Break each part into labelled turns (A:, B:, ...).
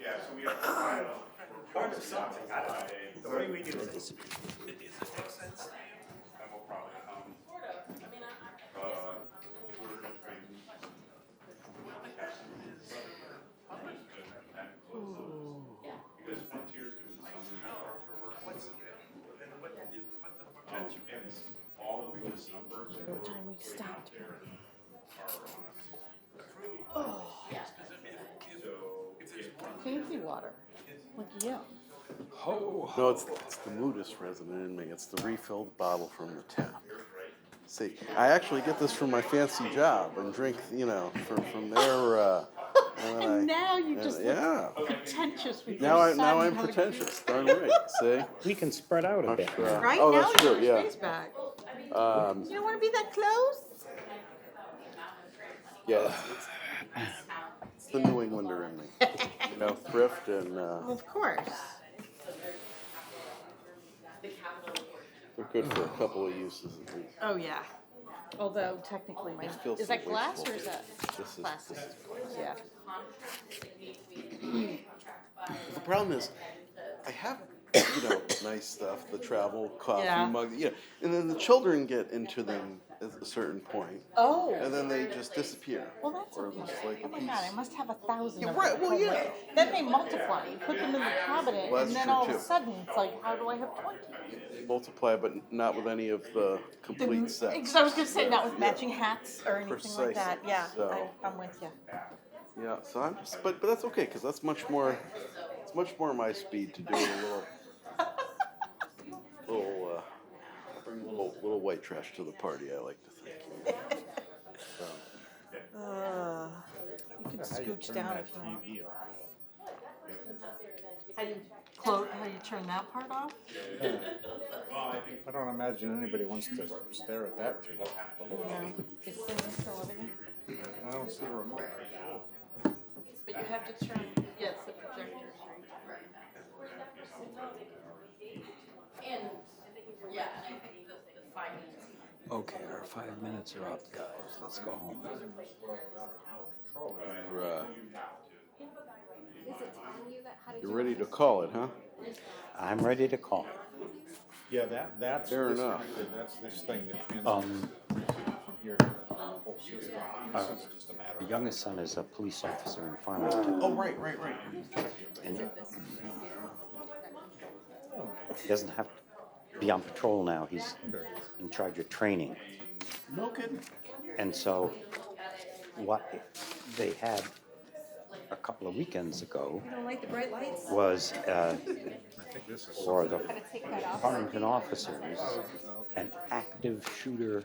A: Yeah, so we have to file a
B: Or
A: report to the office
B: something, I don't
A: Friday,
B: know. The way we do this.
A: and we'll probably, um, uh,
C: Sort of, I mean, I, I I guess I'm, I'm a little
A: order
C: worried.
A: it by
C: Yeah.
A: Because Frontier's doing something else for work. Um, and it's all of those numbers. What time we stopped? uh,
C: Yeah.
A: So,
D: Fancy water. Like, yeah.
E: No, it's, it's the Moodus resident in me. It's the refilled bottle from the tap. See, I actually get this from my fancy job and drink, you know, from, from their. Uh, and then
D: And
E: I-
D: now you
E: and-
D: just look
E: yeah.
D: pretentious with
E: Now
D: your
E: I now
D: son
E: I'm
D: having-
E: pretentious. Darn right. See.
F: We can spread out a bit.
E: Much, uh,
D: Right
E: oh,
D: now
E: that's
D: you
E: true.
D: want your
E: Yeah.
D: face back.
E: Um,
D: You don't want to be that close.
E: yeah. It's, it's, it's the New Englander in me. You know, thrift and uh,
D: Oh, Of course.
E: they're good for a couple of uses at least.
D: Oh yeah. Although technically, my
E: It feels
D: is
E: so
D: that glass or is
E: wasteful.
D: that
E: This is,
D: plastic?
E: this is
D: Yeah.
E: The problem is, I have, you know, nice stuff, the travel coffee
D: Yeah.
E: mug, you know, and then the children get into them at a certain point,
D: Oh.
E: and then they just disappear.
D: Well, that's
E: or
D: okay.
E: just like
D: oh
E: a
D: my
E: piece.
D: god, I must have a thousand.
E: Yeah,
D: of
E: right,
D: them.
E: well,
D: Oh,
E: yeah.
D: wait. Then they multiply. You put them in the cabinet,
E: Well, that's
D: and then
E: true,
D: all of
E: too.
D: a sudden, it's like, how do I have twenty?
E: They multiply, but not with any of the complete sets.
D: Because I was going to say, not with matching hats or anything
E: Precisely.
D: like that. Yeah,
E: So-
D: I, I'm with you.
E: Yeah, so I'm just, but but that's okay because that's much more, it's much more my speed to do a little, little, uh, bring a little little white trash to the party. I like to think. you know. So.
D: Uh, you can scooch down if you want. How do you close? How do you turn that part off?
F: I don't imagine anybody wants to stare at that too long.
D: No, it's still everything.
F: I don't see a remote.
D: But you have to turn. Yeah, it's the projector.
C: And, yeah, I think the, the finance.
G: Okay, our five minutes are up, guys. Let's go home.
E: You're, uh,
H: You're
E: you're ready to call it, huh?
G: I'm ready to call.
F: Yeah, that, that's
E: Fair enough.
F: disconnected, that's this thing that transfers
G: Um,
F: from here to the whole system. This is just a matter
G: the
F: of.
G: youngest son is a police officer in Farmington.
E: Oh, right, right, right.
G: And he doesn't have to be on patrol now. He's in charge of training.
E: No kidding.
G: And so what they had a couple of weekends ago
H: Don't like the bright lights?
G: was uh, for the Farmington officers, an active shooter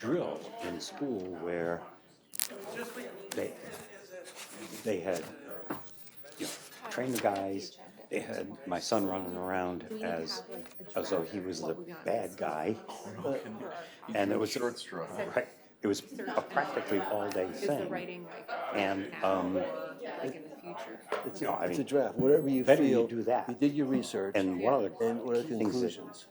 G: drill in school where they, they had, you know, trained the guys, they had my son running around as, as though he was the bad guy. And it was. Short straw. Right, it was a practically all-day
H: Is the
G: thing.
H: writing like
G: And,
H: now
G: um,
H: or like in the future?
G: you know, I
I: It's a
G: mean,
I: draft, whatever you
G: Better you
I: feel.
G: do that.
I: You did your research.
G: and one of the
I: And what are the
G: key things that
I: conclusions?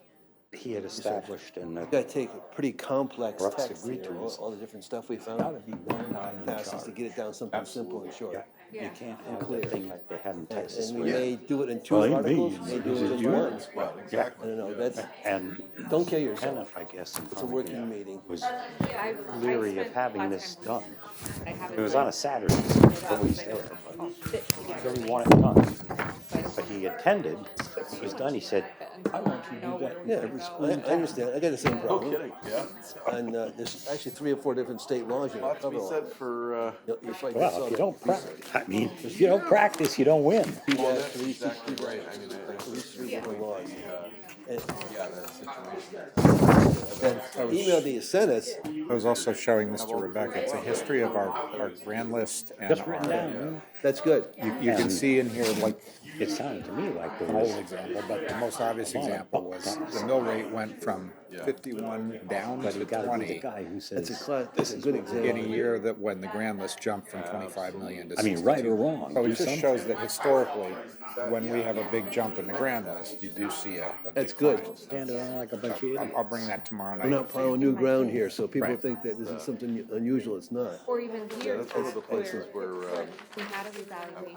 G: he had established in
I: You
G: the
I: gotta take a pretty complex
G: Russ
I: text
G: agreed
I: here,
G: to
I: all,
G: us.
I: all the different stuff we found.
G: gotta be one guy in
I: Passes to
G: charge.
I: get it down something simple and short.
G: Yeah, you
H: Yeah.
G: can't have the thing like they had in
I: And
G: Texas
I: and we
G: where,
I: may do it in two
G: Well, it may
I: articles,
G: be.
I: may do
G: Is
I: it
G: it
I: in
G: you?
I: one.
G: yeah,
I: I don't know, that's,
G: and
I: don't kill
G: Kenneth,
I: yourself.
G: I guess, in
I: It's a working
G: Farmington
I: meeting.
G: was
H: Yeah, I've- I've
G: leery of
H: spent a
G: having
H: lot of
G: this
H: time
G: done.
H: reading up on it. I haven't
G: It was
H: read
G: on a
H: it
G: Saturday, so he was
H: up,
G: always
H: but
G: there,
H: I'll fit
G: but
H: together
G: he
H: things
G: wanted it done.
H: that I
G: But
H: don't
G: he attended, it was done, he said,
H: fit
G: I want you to
H: know
G: do
H: where
G: that
H: we're
I: Yeah,
H: gonna
G: every
H: go.
I: I, I understand, I got the same
E: No
I: problem.
E: kidding. Yeah.
I: And, uh, there's actually three or four different state laws you
E: A
I: gotta
E: lot to
I: cover.
E: be
I: all.
E: said for. Uh,
I: You'll- you'll fight
G: well,
I: yourself.
G: if you don't practice, I mean, if you don't practice, you don't win.
I: Be that
E: that's
I: police,
E: exactly right. I mean, I,
I: At least three different laws. And
E: yeah, that situation.
I: then uh, email that you sent us,
F: I was also showing this to Rebecca, it's a history of our, our grand list and
G: Just written
F: our.
G: down,
I: that's good.
F: You, you can
G: And-
F: see in here like
G: it sounded to me like there
F: an old
G: was
F: example, but the most obvious example was the mill rate went from fifty-one down
G: But
F: to
G: you gotta be the
F: twenty
G: guy who says.
I: That's a cla- that's a good
F: in a
I: example.
F: year that when the grand list jumped from twenty-five million to.
G: I mean, right
F: 62.
G: or wrong,
F: So
G: do
F: it just
G: something.
F: shows that historically, when we have a big jump in the grand list, you do see a. a
I: That's
F: decline.
I: good.
G: Stand around like a bunch of idiots.
F: I'll, I'll bring that tomorrow
I: We're
F: night.
I: not plowing new ground here, so people
F: Right.
I: think that this is something unusual, it's not.
H: Or even here.
E: That's one of the places where. Uh,
H: We had a revaluation.